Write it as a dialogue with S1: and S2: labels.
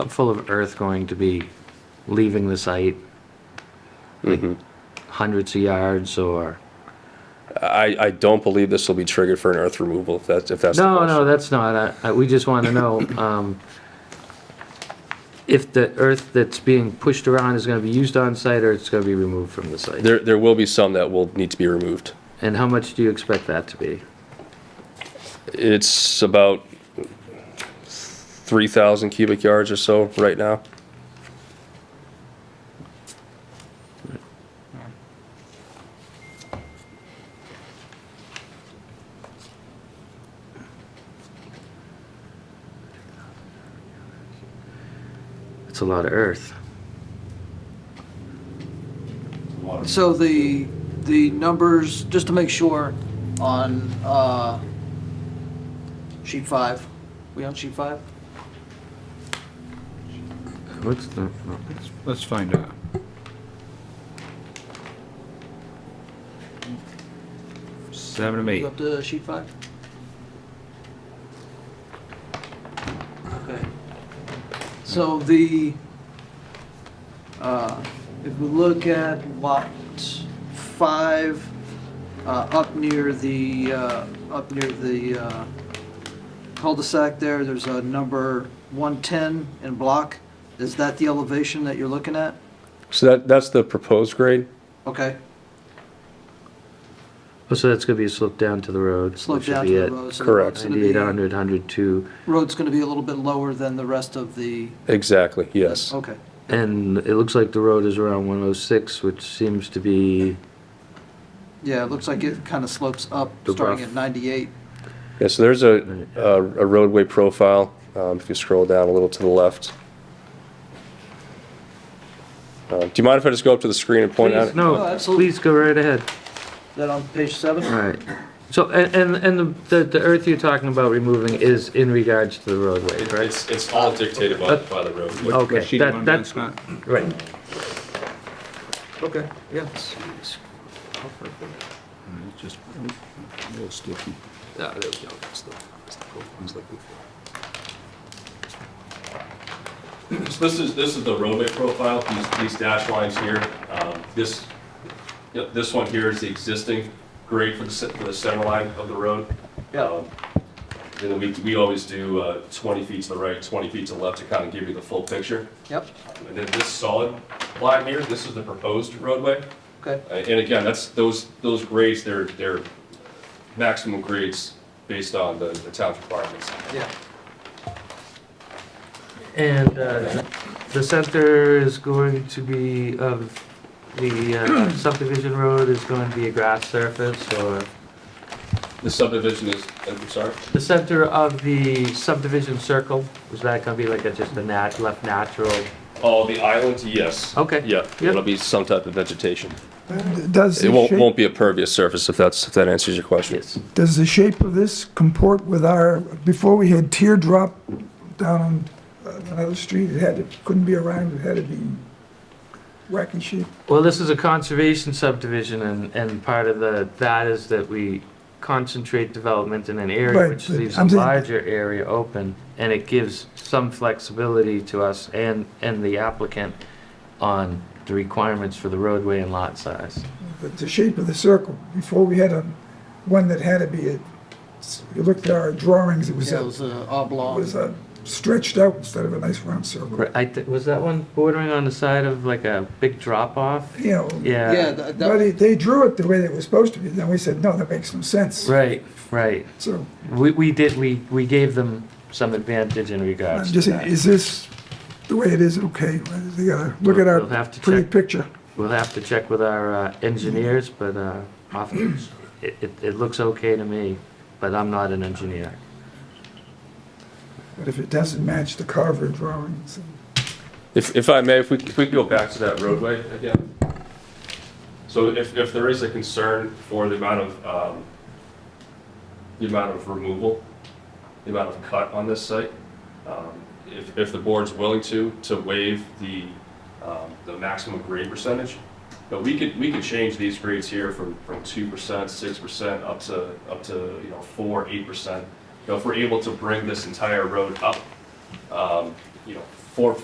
S1: full of earth going to be leaving the site? Like
S2: Mm-hmm.
S1: Hundreds of yards or?
S3: I, I don't believe this will be triggered for an earth removal, if that's, if that's the
S1: No,
S3: question.
S1: no, that's not, I- I- we just want to know um, if the earth that's being pushed around is going to be used on site or it's going to be removed from the site?
S3: There, there will be some that will need to be removed.
S1: And how much do you expect that to be?
S3: It's about three thousand cubic yards or so right now.
S1: It's a lot of earth.
S2: So the, the numbers, just to make sure, on uh, sheet five, we on sheet five?
S1: What's the,
S4: Let's find out. Seven to
S2: You
S4: eight.
S2: up to sheet five? Okay. So the, uh, if we look at lot five, uh, up near the, uh, up near the uh, cul-de-sac there, there's a number 110 in block. Is that the elevation that you're looking at?
S3: So that, that's the proposed grade.
S2: Okay,
S1: oh, so that's going to be sloped down to the road?
S2: slope
S1: which would
S2: down
S1: be
S2: to the
S1: at
S2: road. so
S3: Correct.
S2: road's gonna be-
S1: 9800, 102,
S2: Road's going to be a little bit lower than the rest of the,
S3: Exactly, yes.
S2: okay.
S1: and it looks like the road is around 106, which seems to be,
S2: Yeah, it looks like it kind of slopes up,
S1: The
S2: starting
S1: rough-
S2: at 98.
S3: Yeah, so there's a, a a roadway profile, um, if you scroll down a little to the left. Uh, do you mind if I just go up to the screen and point out?
S1: please,
S3: it?
S2: Oh,
S1: no,
S2: absolutely.
S1: please go right ahead.
S2: That on page seven?
S1: Right. So, and, and, and the, the earth you're talking about removing is in regards to the roadway, correct?
S5: It's, it's all dictated by, by the road.
S4: What-
S1: Okay,
S4: what sheet you
S1: that-
S4: want
S1: that's-
S4: to run, Scott?
S1: Right.
S2: Okay, yeah.
S4: Mm, it's Just a little sticky.
S3: Ah, there we go. That's the- that's the profile I was looking for.
S5: So this is, this is the roadway profile, these, these dash lines here. Um, This, yep, this one here is the existing grade for the, se- for the center line of the road.
S2: Yeah,
S5: Um, And then we, we always do uh, 20 feet to the right, 20 feet to the left to kind of give you the full picture.
S2: yep,
S5: And then this solid line here, this is the proposed roadway.
S2: okay,
S5: Uh, And again, that's, those, those grades, they're, they're maximum grades based on the the town's requirements.
S2: yeah.
S1: And, uh, the center is going to be of, the uh, subdivision road is going to be a grass surface or?
S5: The subdivision is, I'm sorry?
S1: The center of the subdivision circle, is that gonna be like a, just a nat, left natural?
S5: Oh, the island, yes.
S1: Okay.
S3: Yeah,
S1: Yep.
S3: it'll be some type of vegetation.
S6: Does
S3: It
S6: the
S3: won't,
S6: shape,
S3: won't be a pervious surface if that's, if that answers your question.
S1: Yes.
S6: does the shape of this comport with our, before we had teardrop down on uh, another street, it had, to couldn't be around, it had to be wacky shape.
S1: Well, this is a conservation subdivision and, and part of the, that is that we concentrate development in an area
S6: Right,
S1: which
S6: but
S1: leaves a
S6: I'm saying-
S1: larger area open and it gives some flexibility to us and, and the applicant on the requirements for the roadway and lot size.
S6: But the shape of the circle, before we had a, one that had to be, a- you looked at our drawings, it was
S2: Yeah, it
S6: a,
S2: was uh, oblong.
S6: was a stretched out instead of a nice round circle.
S1: I, thi- was that one bordering on the side of like a big drop off?
S6: You know,
S1: Yeah.
S2: Yeah, that,
S6: but
S2: that-
S6: they- they drew it the way it was supposed to be, then we said, no, that makes no sense.
S1: Right, right.
S6: So,
S1: We, we did, we, we gave them some advantage in
S6: I'm
S1: regards to
S6: just,
S1: that.
S6: is this the way it is, okay? They gotta look at our
S1: We'll have to
S6: pretty
S1: check.
S6: picture.
S1: We'll have to check with our uh, engineers, but uh, often it, it, it looks okay to me, but I'm not an engineer.
S6: But if it doesn't match the Carver drawings,
S3: If, if I may, if we, if we
S5: We can go back to that roadway again. So if, if there is a concern for the amount of, um, the amount of removal, the amount of cut on this site, um, if, if the board's willing to, to waive the, um, the maximum grade percentage, but we could, we could change these grades here from, from two percent, six percent, up to, up to, you know, four, eight percent. You know, if we're able to bring this entire road up, um, you know, four